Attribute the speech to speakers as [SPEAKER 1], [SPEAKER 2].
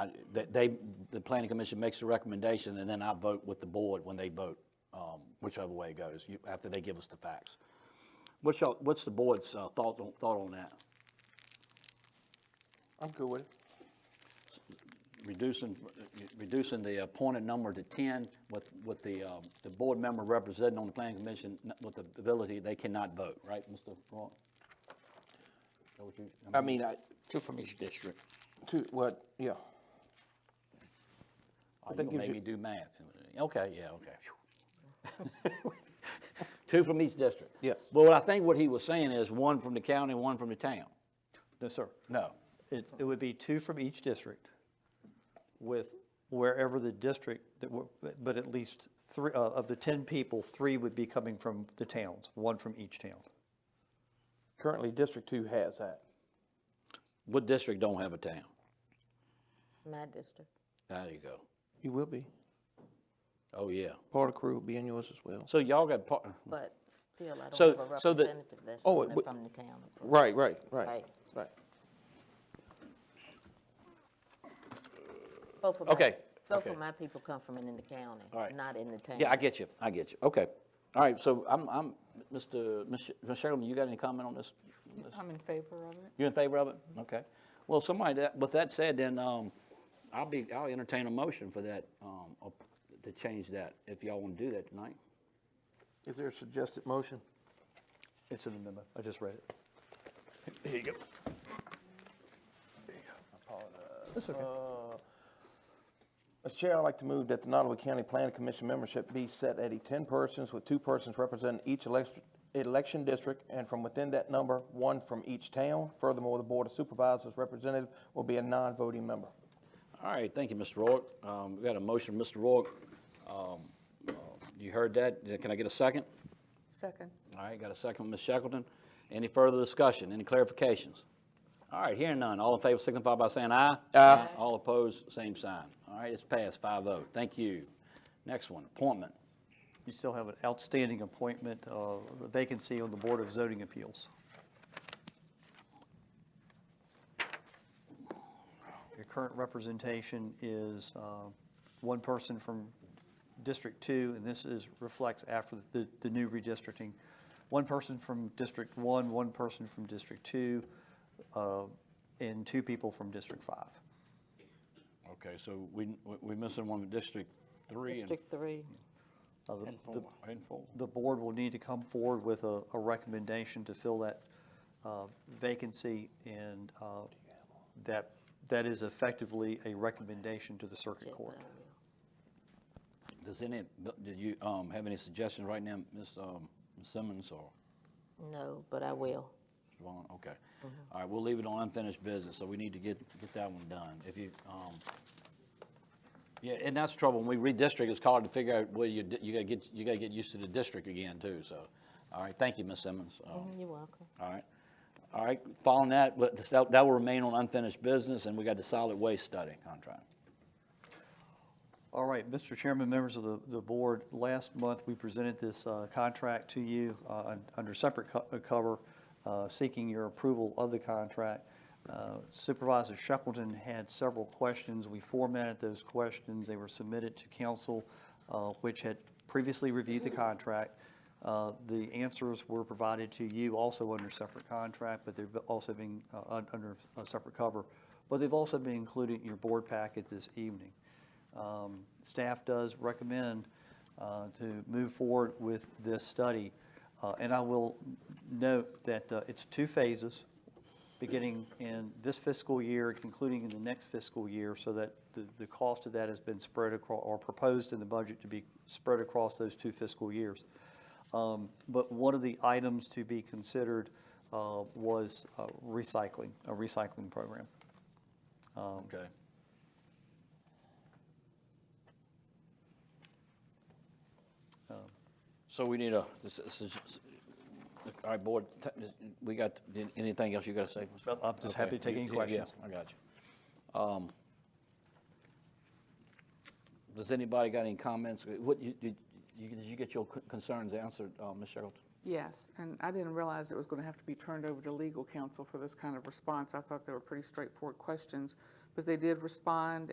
[SPEAKER 1] I- They, they- the planning commission makes the recommendation, and then I vote with the board when they vote, um, whichever way it goes, you- after they give us the facts. What's your, what's the board's uh, thought, on- thought on that?
[SPEAKER 2] I'm good with it.
[SPEAKER 1] Reducing, reducing the appointed number to 10 with, with the, um, the board member representing on the planning commission n- with the ability, they cannot vote, right, Mr. Roy? Is that what you-
[SPEAKER 2] I mean, I,
[SPEAKER 3] Two from each district.
[SPEAKER 2] two, what, yeah.
[SPEAKER 1] Oh,
[SPEAKER 2] that
[SPEAKER 1] you
[SPEAKER 2] gives
[SPEAKER 1] made
[SPEAKER 2] you-
[SPEAKER 1] me do math. Okay, yeah, okay. Phew. Two from each district?
[SPEAKER 2] Yes.
[SPEAKER 1] But what I think what he was saying is one from the county, one from the town.
[SPEAKER 4] No, sir.
[SPEAKER 1] No.
[SPEAKER 4] It, it would be two from each district with wherever the district, that were- but at least three, uh, of the 10 people, three would be coming from the towns, one from each town.
[SPEAKER 2] Currently, District Two has that.
[SPEAKER 1] What district don't have a town?
[SPEAKER 5] My district.
[SPEAKER 1] There you go.
[SPEAKER 2] You will be.
[SPEAKER 1] Oh, yeah.
[SPEAKER 2] Part of crew will be in yours as well.
[SPEAKER 1] So y'all got part,
[SPEAKER 5] But still, I
[SPEAKER 1] Hmm. So-
[SPEAKER 5] don't have a
[SPEAKER 1] so the-
[SPEAKER 5] representative that's
[SPEAKER 2] Oh,
[SPEAKER 5] on
[SPEAKER 2] it
[SPEAKER 5] the-
[SPEAKER 2] would-
[SPEAKER 5] from the town.
[SPEAKER 2] Right, right, right,
[SPEAKER 5] Right.
[SPEAKER 2] right.
[SPEAKER 5] Both of my-
[SPEAKER 1] Okay,
[SPEAKER 5] Both
[SPEAKER 1] okay.
[SPEAKER 5] of my people come from in the county,
[SPEAKER 1] All right.
[SPEAKER 5] not in the town.
[SPEAKER 1] yeah, I get you, I get you. Okay. All right, so I'm, I'm, Mr., Ms. Sherman, you got any comment on this?
[SPEAKER 6] I'm in favor of it.
[SPEAKER 1] You in favor of it? Okay. Well, somebody, that- with that said, then um, I'll be, I'll entertain a motion for that, um, up- to change that, if y'all want to do that tonight.
[SPEAKER 2] Is there a suggested motion?
[SPEAKER 4] It's in the memo. I just read it.
[SPEAKER 2] Mr. Uh, Chair, I'd like to move that the Nottaway County Planning Commission membership be set at a ten persons with two persons representing each election, election district, and from within that number, one from each town. Furthermore, the Board of Supervisors representative will be a non-voting member.
[SPEAKER 1] All right, thank you, Mr. Rourke. Um, We got a motion, Mr. Rourke. Um, uh, You heard that. Uh, Can I get a second?
[SPEAKER 6] Second.
[SPEAKER 1] All right, got a second from Ms. Shackleton. Any further discussion, any clarifications? All right, hearing none. All in favor signify by saying aye. Aye. All opposed, same sign. All right, it's passed, 5-0. Thank you. Next one, appointment.
[SPEAKER 4] You still have an outstanding appointment, uh, vacancy on the Board of Zoning Appeals. Your current representation is uh, one person from District Two, and this is, reflects after the, the new redistricting. One person from District One, one person from District Two, uh, and two people from District Five.
[SPEAKER 1] Okay, so we, we missing one, District Three and
[SPEAKER 5] District three.
[SPEAKER 4] Uh, the- the-
[SPEAKER 1] and four.
[SPEAKER 4] the board will need to come forward with a, a recommendation to fill that uh, vacancy, and uh, that, that is effectively a recommendation to the circuit court.
[SPEAKER 1] Does any, do you, um, have any suggestions right now, Ms. um, Ms. Simmons or?
[SPEAKER 5] No, but I will.
[SPEAKER 1] Vaughn, okay. All right, we'll leave it on unfinished business, so we need to get, get that one done. If you, um, yeah, and that's the trouble, when we redistrict, it's hard to figure out where you, di- you gotta get, you gotta get used to the district again, too, so. All right, thank you, Ms. Simmons. Um,
[SPEAKER 5] You're welcome.
[SPEAKER 1] All right, all right, following that, but this- that that will remain on unfinished business, and we got the solid waste study contract.
[SPEAKER 4] All right, Mr. Chairman, members of the, the board, last month, we presented this uh, contract to you uh, un- under separate co- uh, cover, uh, seeking your approval of the contract. Uh, Supervisor Shackleton had several questions. We formatted those questions. They were submitted to council, uh, which had previously reviewed the contract. Uh, The answers were provided to you also under separate contract, but they've also been uh, un- under a separate cover. But they've also been included in your board packet this evening. Um, Staff does recommend uh, to move forward with this study. Uh, And I will note that uh, it's two phases, beginning in this fiscal year, concluding in the next fiscal year, so that the, the cost of that has been spread across, or proposed in the budget to be spread across those two fiscal years. Um, But one of the items to be considered uh, was uh, recycling, a recycling program.
[SPEAKER 1] Okay. So we need a, this is- this is- all right, board, t- we got, did- anything else you got to say? Mr.
[SPEAKER 4] Well, I'm just happy to
[SPEAKER 1] Okay,
[SPEAKER 4] take any
[SPEAKER 1] yeah,
[SPEAKER 4] questions.
[SPEAKER 1] I got you. Um, Does anybody got any comments? What, you- did you did you get your c- concerns answered, uh, Ms. Shackleton?
[SPEAKER 6] Yes, and I didn't realize it was going to have to be turned over to legal counsel for this kind of response. I thought they were pretty straightforward questions, but they did respond,